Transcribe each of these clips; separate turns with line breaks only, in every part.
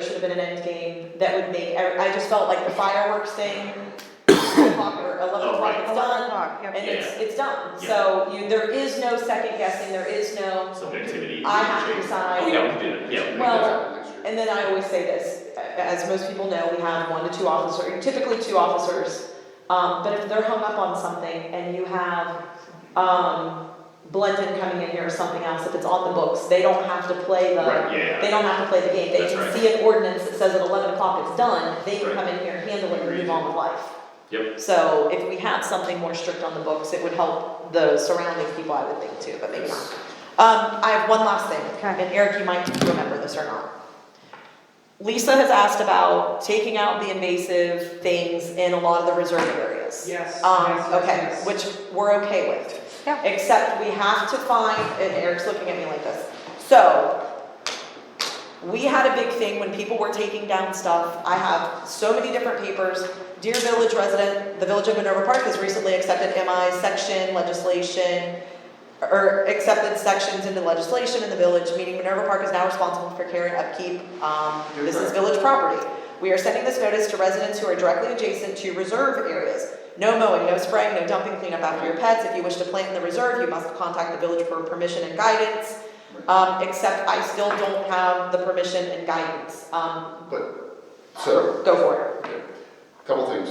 should have been an end game that would make, I, I just felt like the fireworks thing, ten o'clock or eleven
Oh,
o'clock,
right.
it's
Eleven
done,
o'clock,
and
yep.
it's, it's done.
Yeah.
So you, there is no second guessing, there is no,
Subjectivity.
I have to decide.
Oh, yeah, we can do that, yeah. we can do
Well,
that.
And then I always say this, a- as most people know, we have one to two officers, typically two officers. Um, but if they're hung up on something and you have, um, Blendon coming in here or something else, if it's on the books, they don't have to play the,
Right, yeah,
they don't have to play the game. They
That's
can
right.
see an ordinance that says at eleven o'clock it's done, they can
Right.
come in here, handle it, and move on with life.
Yep.
So if we had something more strict on the books, it would help the surrounding people, I would think too, but maybe not. Um, I have one last thing,
Okay.
and Eric, you might remember this or not. Lisa has asked about taking out the invasive things in a lot of the reserve areas.
Yes.
Um,
yes,
okay,
yes.
which we're okay with.
Yeah.
Except we have to find, and Eric's looking at me like this, so. We had a big thing when people were taking down stuff, I have so many different papers. Dear Village resident, the Village of Minerva Park has recently accepted MI section legislation. Or accepted sections into legislation in the village, meaning Minerva Park is now responsible for care and upkeep, um, this is village property. We are sending this notice to residents who are directly adjacent to reserve areas. No mowing, no spraying, no dumping cleanup after your pets. If you wish to plant in the reserve, you must contact the village for permission and guidance. Um, except I still don't have the permission and guidance. Um,
But, so,
go for it.
couple things,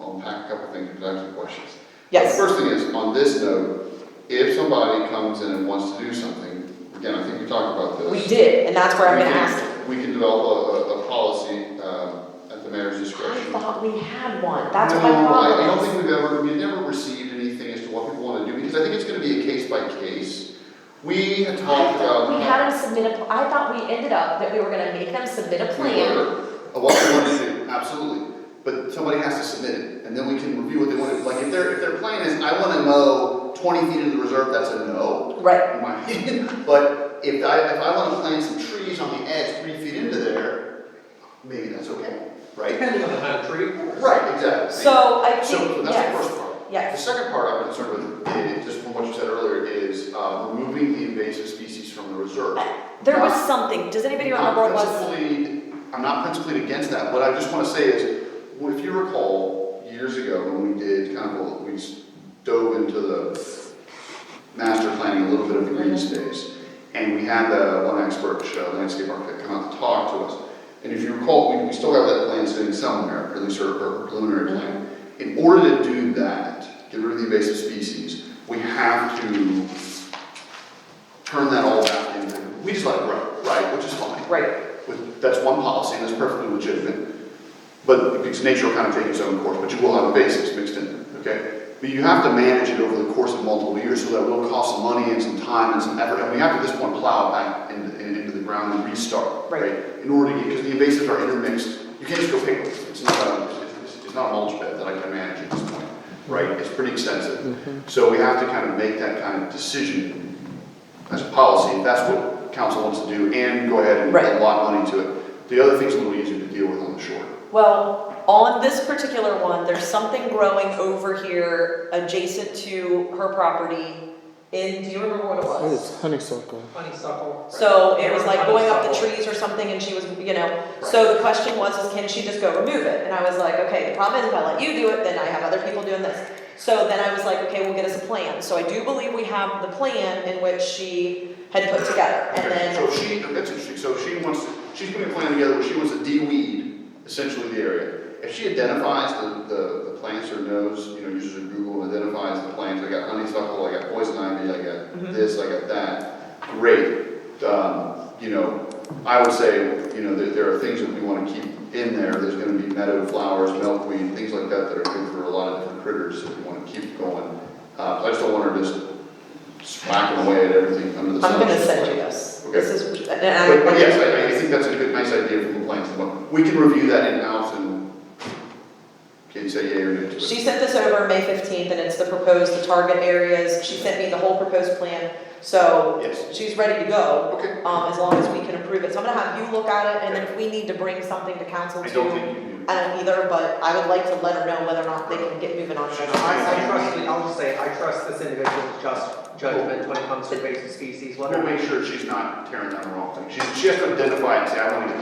I'll unpack a couple things, because I have some questions.
Yes.
The First thing is, on this note, if somebody comes in and wants to do something, again, I think we talked about this.
We did, and that's where I'm
We
gonna
can-
ask you.
We can develop a, a, a policy, um, at the mayor's
I
discretion.
thought we had one. That's what my
No, I, I
problem
don't
is.
think we've ever, we've never received anything as to what people wanna do, because I think it's gonna be a case by case. We had talked about.
We had them submit a, I thought we ended up that we were gonna make them submit a
We
plan.
were, uh, what they want to do, absolutely, but somebody has to submit it, and then we can review what they want to, like, if their, if their plan is, I wanna mow twenty feet into the reserve, that's a no.
Right,
in my opinion. But if I, if I wanna plant some trees on the edge, three feet into there, maybe that's okay, right?
Depending on the kind of tree.
Right, exactly.
so I
So
think,
that's the
yes,
first part. The
yes.
second part I'm concerned with, is, just from what you said earlier, is, uh, removing the invasive species from the reserve.
There was something, does anybody remember what it was?
I'm principally, I'm not principally against that, what I just wanna say is, well, if you recall, years ago, when we did kind of, a- we s- dove into the master planning, a little bit of the green
Mm-hmm.
space, and we had the one expert, uh, landscape architect, come out to talk to us. And if you recall, we, we still have that plan sitting somewhere, or at least our our preliminary plan. In order to do that, get rid of the invasive species, we have to turn that all back into, we just let it grow, right, which is fine.
Right,
With- That's one policy, and that's perfectly legitimate. But because nature will kind of take its own course, but you will have basics mixed in there, okay? But you have to manage it over the course of multiple years, so that will cost some money and some time and some effort. And we have to at this point plow back into, in- into the ground and restart,
Right.
right? In order to get, because the invasives are intermixed, you can't just go pick them. It's not a, it's, it's not a mulch bed that I can manage at this point, right? It's pretty extensive.
Mm-hmm.
So we have to kind of make that kind of decision as a policy, if that's what council wants to do, and go ahead and
Right.
allot money to it. The other thing's a little easier to deal with on the short.
well, on this particular one, there's something growing over here adjacent to her property in, do you remember what it
What
was?
is honeysuckle?
Honeysuckle.
So it was like going up the
Honeysuckle.
trees or something and she was, you know, so the question was, is can she just go remove it? And I was like, okay, the problem is if I let you do it, then I have other people doing this. So then I was like, okay, we'll get us a plan. So I do believe we have the plan in which she had put together and
Okay,
then,
So she, that's interesting, so she wants, she's putting a plan together where she wants to de-weed essentially the area. If she identifies the, the, the plants or knows, you know, uses her Google, and identifies the plants, I got honeysuckle, I got poison ivy, I
Mm-hmm.
got this, I got that, great. Um, you know, I would say, you know, there, there are things that we wanna keep in there, there's gonna be meadow flowers, milkweed, things like that that are good for a lot of different critters that we wanna keep going. Uh, I just don't want her just smacking away at everything under the sun.
I'm gonna send you this.
Okay.
This is, and I.
But, but yes, I, I think that's a good, nice idea from the planning standpoint. We can review that in-house and can say yea or nay to it.
She sent this over May fifteenth, and it's the proposed, the target areas, she sent me the whole proposed plan, so
Yes,
she's ready to go,
okay.
um, as long as we can approve it, so I'm gonna have you look at it, and then if we need to bring something to council
I
too.
don't think you do.
I don't either, but I would like to let her know whether or not they can get moving on it. or not.
I, I trust, the- I'll just say, I trust this individual's just judgment when it comes to invasive species, whether
We'll
it
make sure she's not tearing down the wrong thing. She, she has to identify and say, I want to get